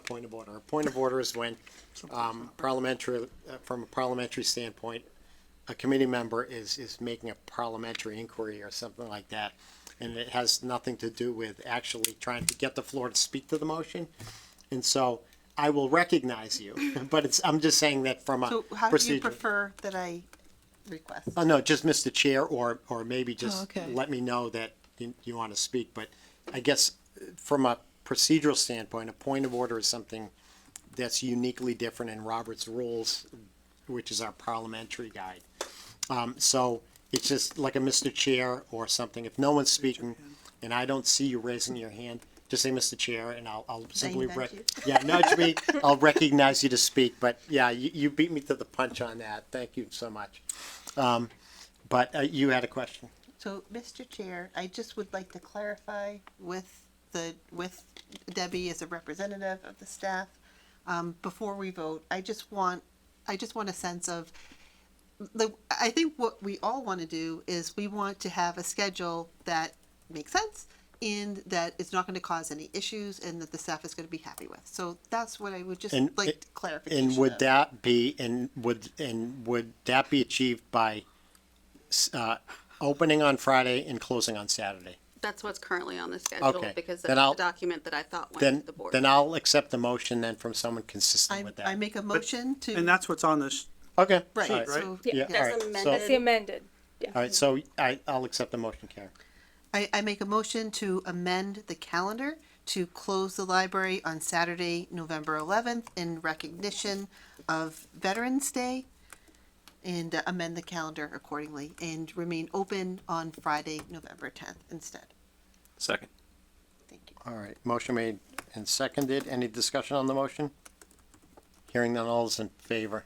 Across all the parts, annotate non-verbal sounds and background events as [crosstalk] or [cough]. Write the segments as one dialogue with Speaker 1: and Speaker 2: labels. Speaker 1: point of order. A point of order is when, um, parliamentary, uh, from a parliamentary standpoint, a committee member is, is making a parliamentary inquiry or something like that. And it has nothing to do with actually trying to get the floor to speak to the motion. And so I will recognize you, [laughs] but it's, I'm just saying that from a
Speaker 2: So how do you
Speaker 1: procedure.
Speaker 2: prefer that I request?
Speaker 1: Oh, no, just Mr. Chair, or, or maybe just
Speaker 2: okay.
Speaker 1: let me know that you, you want to speak, but I guess uh, from a procedural standpoint, a point of order is something that's uniquely different in Robert's rules, which is our parliamentary guide. Um, so it's just like a Mr. Chair or something. If no one's speaking and I don't see you raising your hand, just say Mr. Chair and I'll, I'll simply,
Speaker 2: nudge
Speaker 1: rec-
Speaker 2: you.
Speaker 1: [laughs] yeah, nudge me. I'll recognize you to speak, but yeah, you, you beat me to the punch on that. Thank you so much. Um, but uh, you had a question.
Speaker 2: So, Mr. Chair, I just would like to clarify with the, with Debbie as a representative of the staff, um, before we vote, I just want, I just want a sense of, the, I think what we all want to do is we want to have a schedule that makes sense and that it's not going to cause any issues and that the staff is going to be happy with. So that's what I would just
Speaker 1: And
Speaker 2: like
Speaker 1: it-
Speaker 2: clarification
Speaker 1: And would
Speaker 2: of.
Speaker 1: that be, and would, and would that be achieved by, s- uh, opening on Friday and closing on Saturday?
Speaker 3: That's what's currently on the schedule,
Speaker 1: Okay,
Speaker 3: because
Speaker 1: then
Speaker 3: that's
Speaker 1: I'll-
Speaker 3: the document that I thought went
Speaker 1: Then,
Speaker 3: to the board.
Speaker 1: then I'll accept the motion then from someone consistent
Speaker 2: I,
Speaker 1: with
Speaker 2: I
Speaker 1: that.
Speaker 2: make a motion to.
Speaker 4: And that's what's on this.
Speaker 1: Okay.
Speaker 2: Right,
Speaker 1: all right.
Speaker 4: right?
Speaker 2: so-
Speaker 1: Yeah,
Speaker 3: That's
Speaker 1: all right.
Speaker 3: amended.
Speaker 1: So,
Speaker 5: That's the amended. Yeah.
Speaker 1: all right, so I, I'll accept the motion, Karen.
Speaker 2: I, I make a motion to amend the calendar to close the library on Saturday, November eleventh in recognition of Veterans Day and uh, amend the calendar accordingly and remain open on Friday, November tenth instead.
Speaker 6: Second.
Speaker 2: Thank you.
Speaker 1: All right, motion made and seconded. Any discussion on the motion? Hearing none, all is in favor.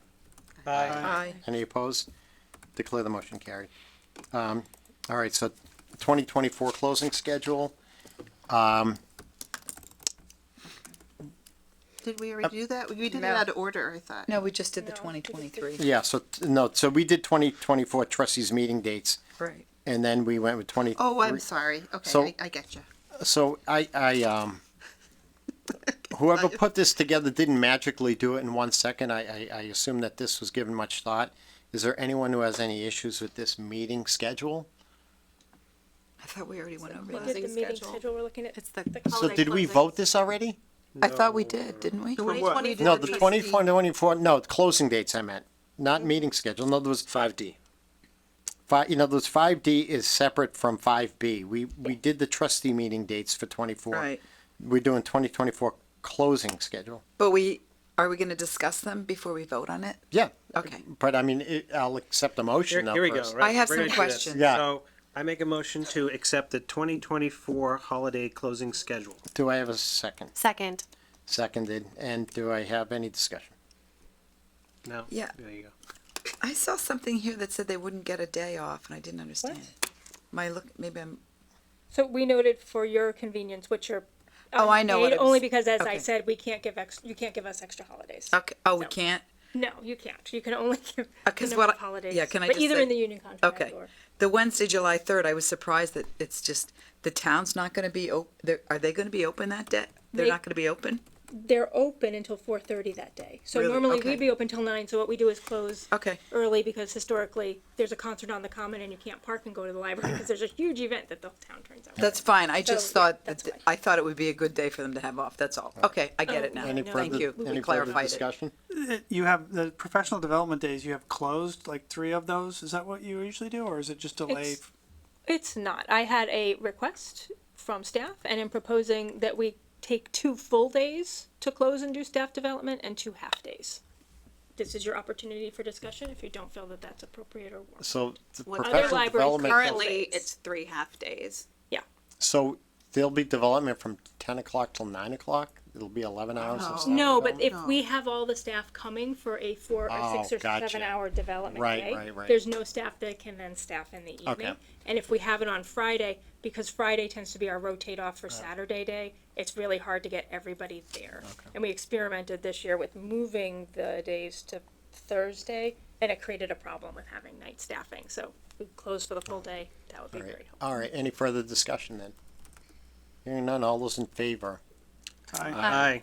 Speaker 3: Aye.
Speaker 1: Any opposed? Declare the motion carried. Um, all right, so twenty twenty-four closing schedule.
Speaker 2: Did we already do that? We we did it out of order, I thought.
Speaker 7: No, we just did the twenty twenty-three.
Speaker 1: Yeah, so, t- no, so we did twenty twenty-four trustees meeting dates,
Speaker 7: Right.
Speaker 1: and then we went with twenty.
Speaker 2: Oh, I'm sorry.
Speaker 1: So-
Speaker 2: Okay, I, I get you.
Speaker 1: So I, I, um, whoever put this together didn't magically do it in one second. I, I, I assume that this was given much thought. Is there anyone who has any issues with this meeting schedule?
Speaker 7: I thought we already went
Speaker 5: We
Speaker 7: over that.
Speaker 5: did the
Speaker 3: Closing
Speaker 5: meeting
Speaker 3: schedule.
Speaker 5: schedule, we're looking at.
Speaker 3: It's the.
Speaker 1: So did we vote this already?
Speaker 7: I thought we did, didn't we?
Speaker 4: For what?
Speaker 1: No, the 24,
Speaker 2: 2024
Speaker 1: 24, no, the closing dates I meant, not meeting schedule. In other words,
Speaker 6: Five D.
Speaker 1: five, you know, those 5D is separate from 5B. We, we did the trustee meeting dates for 24.
Speaker 7: Right.
Speaker 1: We're doing 2024 closing schedule.
Speaker 7: But we, are we gonna discuss them before we vote on it?
Speaker 1: Yeah.
Speaker 7: Okay.
Speaker 1: But I mean, it- I'll accept a motion now
Speaker 4: Here we go.
Speaker 1: first.
Speaker 4: right?
Speaker 7: I have some
Speaker 4: We're gonna do this.
Speaker 7: questions.
Speaker 1: Yeah.
Speaker 4: So I make a motion to accept the twenty twenty-four holiday closing schedule.
Speaker 1: Do I have a second?
Speaker 3: Second.
Speaker 1: Seconded. And do I have any discussion?
Speaker 4: No?
Speaker 7: Yeah.
Speaker 4: There you go.
Speaker 7: I saw something here that said they wouldn't get a day off and I didn't understand it. My look, maybe I'm,
Speaker 5: So we noted for your convenience, what your.
Speaker 7: Oh, I know what
Speaker 5: unpaid,
Speaker 7: it
Speaker 5: Only
Speaker 7: was.
Speaker 5: because as I
Speaker 7: Okay.
Speaker 5: said, we can't give ex, you can't give us extra holidays.
Speaker 7: okay, oh, we can't?
Speaker 5: No, you can't. You can only [laughs] give.
Speaker 7: Uh, 'cause
Speaker 5: a
Speaker 7: what
Speaker 5: number of
Speaker 7: I-
Speaker 5: Holidays.
Speaker 7: yeah, can I
Speaker 5: But
Speaker 7: just
Speaker 5: either
Speaker 7: say-
Speaker 5: in the union contract
Speaker 7: Okay.
Speaker 5: or.
Speaker 7: The Wednesday, July third, I was surprised that it's just, the town's not gonna be op, they're, are they gonna be open that day? They're
Speaker 5: They-
Speaker 7: not gonna be open?
Speaker 5: They're open until four thirty that day. So
Speaker 7: Really?
Speaker 5: normally
Speaker 7: Okay.
Speaker 5: we'd be open till nine, so what we do is close.
Speaker 7: Okay.
Speaker 5: Early because historically, there's a concert on the common and you can't park and go to the library because there's a huge event that the whole town turns out.
Speaker 7: That's fine, I
Speaker 5: So,
Speaker 7: just
Speaker 5: yeah,
Speaker 7: thought, that
Speaker 5: that's
Speaker 7: th-
Speaker 5: fine.
Speaker 7: I thought it would be a good day for them to have off, that's all. Okay, I get it now.
Speaker 1: Any
Speaker 7: Thank
Speaker 1: further-
Speaker 7: you, we
Speaker 1: Any further
Speaker 7: clarified it.
Speaker 1: discussion?
Speaker 8: You have the professional development days, you have closed like three of those. Is that what you usually do or is it just delay?
Speaker 5: It's- It's not. I had a request from staff and am proposing that we take two full days to close and do staff development and two half days. This is your opportunity for discussion if you don't feel that that's appropriate or warranted.
Speaker 1: So the
Speaker 3: What other
Speaker 1: professional
Speaker 5: libraries
Speaker 1: development,
Speaker 5: current-
Speaker 3: Currently,
Speaker 5: days.
Speaker 3: it's three half-days.
Speaker 1: so there'll be development from 10 o'clock till 9 o'clock? It'll be 11 hours of staff
Speaker 5: Oh. No, but if
Speaker 2: No.
Speaker 5: we have all the staff coming for a four or six
Speaker 1: Oh,
Speaker 5: or seven
Speaker 1: gotcha.
Speaker 5: hour development
Speaker 1: Right,
Speaker 5: day,
Speaker 1: right, right.
Speaker 5: there's no staff that can then staff in the evening. And if we have it on Friday, because Friday tends to be our rotate off
Speaker 1: Uh.
Speaker 5: for Saturday day, it's really hard to get everybody there. And we experimented this year with moving the days to Thursday, and it created a problem with having night staffing. So we close for the full day. That would be
Speaker 1: All right.
Speaker 5: great.
Speaker 1: All right, any further discussion then? Hearing none, all those in favor?
Speaker 7: Uh,
Speaker 8: Aye.
Speaker 4: Aye.